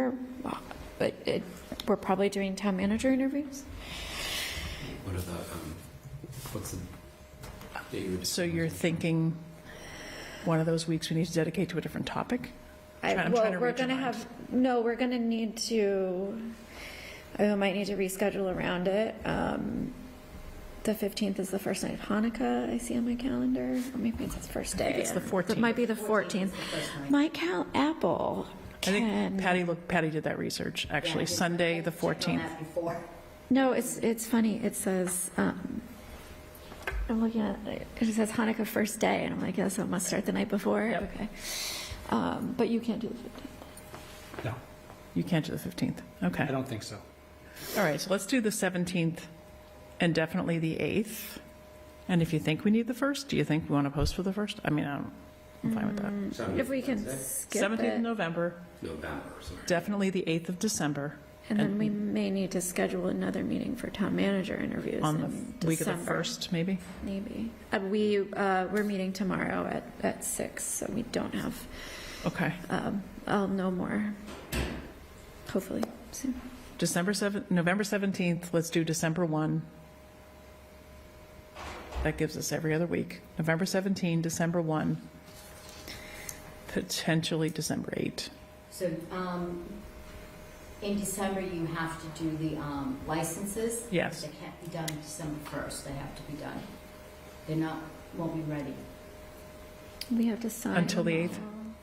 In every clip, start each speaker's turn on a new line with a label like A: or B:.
A: or, but it, we're probably doing town manager interviews?
B: What are the, um, what's the date you were
C: So you're thinking one of those weeks we need to dedicate to a different topic?
A: I-
C: Try- I'm
A: well,
C: trying to
A: we're
C: read your
A: gonna
C: mind.
A: have, no, we're gonna need to, I might need to reschedule around it. Um, The 15th is the first night of Hanukkah, I see on my calendar, or maybe it's the first day. I
C: it's the
A: It might be the 14th. My cal, Apple
C: I think
A: can,
C: Patty looked, Patty did that research, actually, Sunday, the 14th.
A: no, it's, it's funny, it says, um, I'm looking at, it It says Hanukkah first day, and I'm like, yes, it must start the night before,
C: Yep.
A: okay. Um, But you can't do the 15th.
B: No,
C: You can't do the 15th,
B: I
C: okay.
B: don't think so.
C: All right, so let's do the 17th and definitely the 8th. And if you think we need the 1st, do you think we want to post for the 1st? I mean, I'm I'm fine with that.
B: Mm,
A: If we can skip
C: 17th of
A: it,
C: November,
B: November, sorry.
C: definitely the 8th of December,
A: and then we may need to schedule another meeting for town manager interviews
C: on
A: in
C: the week of the
A: December.
C: 1st, maybe?
A: Maybe. Uh, We, uh, we're meeting tomorrow at, at six, so we don't have,
C: Okay.
A: um, I'll know more, hopefully, soon.
C: December 7th, November 17th, let's do December 1. That gives us every other week. November 17, December 1, potentially December 8.
D: So, um, in December, you have to do the, um, licenses.
C: Yes.
D: They can't be done December first, they have to be done. They're not, won't be ready.
A: We have to sign.
C: Until the
A: them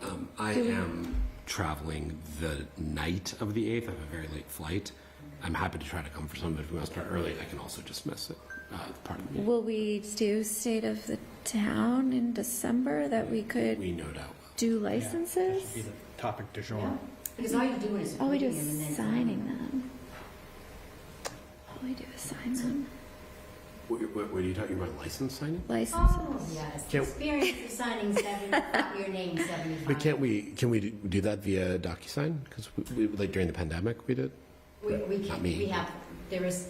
C: 8th?
A: all.
B: Um, I am traveling the night of the 8th. I have a very late flight. I'm happy to try to come for some, but if we want to start early, I can also just miss it. Uh, part of me.
A: Will we do state of the town in December that we could
B: We no doubt
A: do licenses?
E: Topic du jour.
D: Yeah. Because all you're doing is
A: All we do
D: approving them and then.
A: is signing them. All we do is sign them.
B: will. What, what, what are you talking about? License signing?
D: Oh,
A: Licenses.
D: yes,
B: Can't-
D: experience of signing seventy, your name seventy-five.
B: But can't we, can we do that via DocuSign? Because we, like during the pandemic, we did.
D: We, we
B: Not
D: can,
B: me.
D: we have, there is,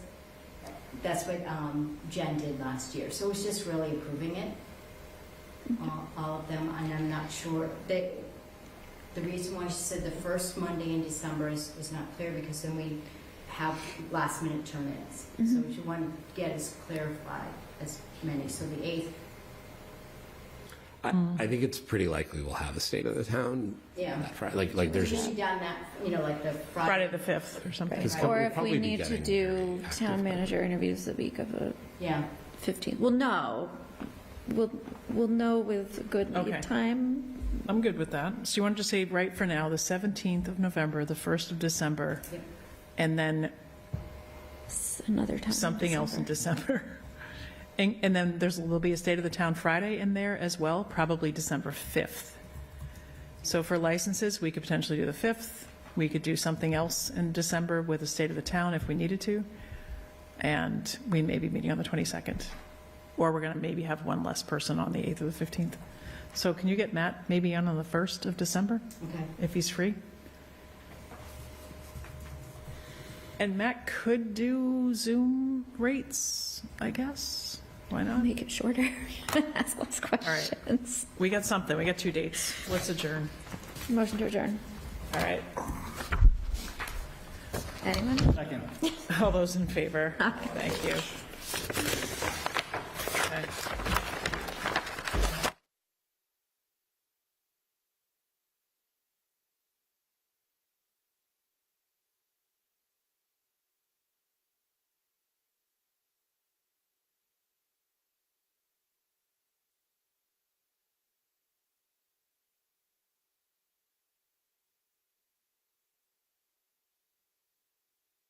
D: that's what um, Jen did last year, so it's just really improving it. All- All of them, and I'm not sure, they, the reason why she said the first Monday in December is, was not clear, because then we have last minute turn-ins. So
A: Mhm.
D: what you want to get is clarified as many, so the eighth,
B: I, I think it's pretty likely we'll have a state of the town
D: yeah.
B: that Friday. Like, like there's
D: Usually done that, you know, like the
C: Friday
D: Friday,
C: the 5th or something.
B: Because
D: Right.
B: we'll
A: Or if
B: probably
A: we
B: be
A: need to
B: getting
A: do
B: active
A: town
B: by-
A: manager interviews the week of the
D: yeah.
A: 15th, well, no, we'll, we'll know with good
C: Okay.
A: lead time.
C: I'm good with that. So you wanted to say right for now, the 17th of November, the 1st of December,
D: Yep.
C: and then
A: S- Another time. in
C: something else in
A: December.
C: December. And, and then there's, there'll be a State of the Town Friday in there as well, probably December 5th. So for licenses, we could potentially do the 5th. We could do something else in December with a State of the Town if we needed to. And we may be meeting on the 22nd. Or we're going to maybe have one less person on the 8th or the 15th. So can you get Matt maybe on on the 1st of December?
D: Okay.
C: if he's free. And Matt could do Zoom rates, I guess. Why
A: I'll
C: not?
A: Make it shorter, ask less questions.
C: We got something. We got two dates. Let's adjourn.
A: Motion to adjourn.
C: All right.
A: Anyone?
C: All those in favor? Thank you.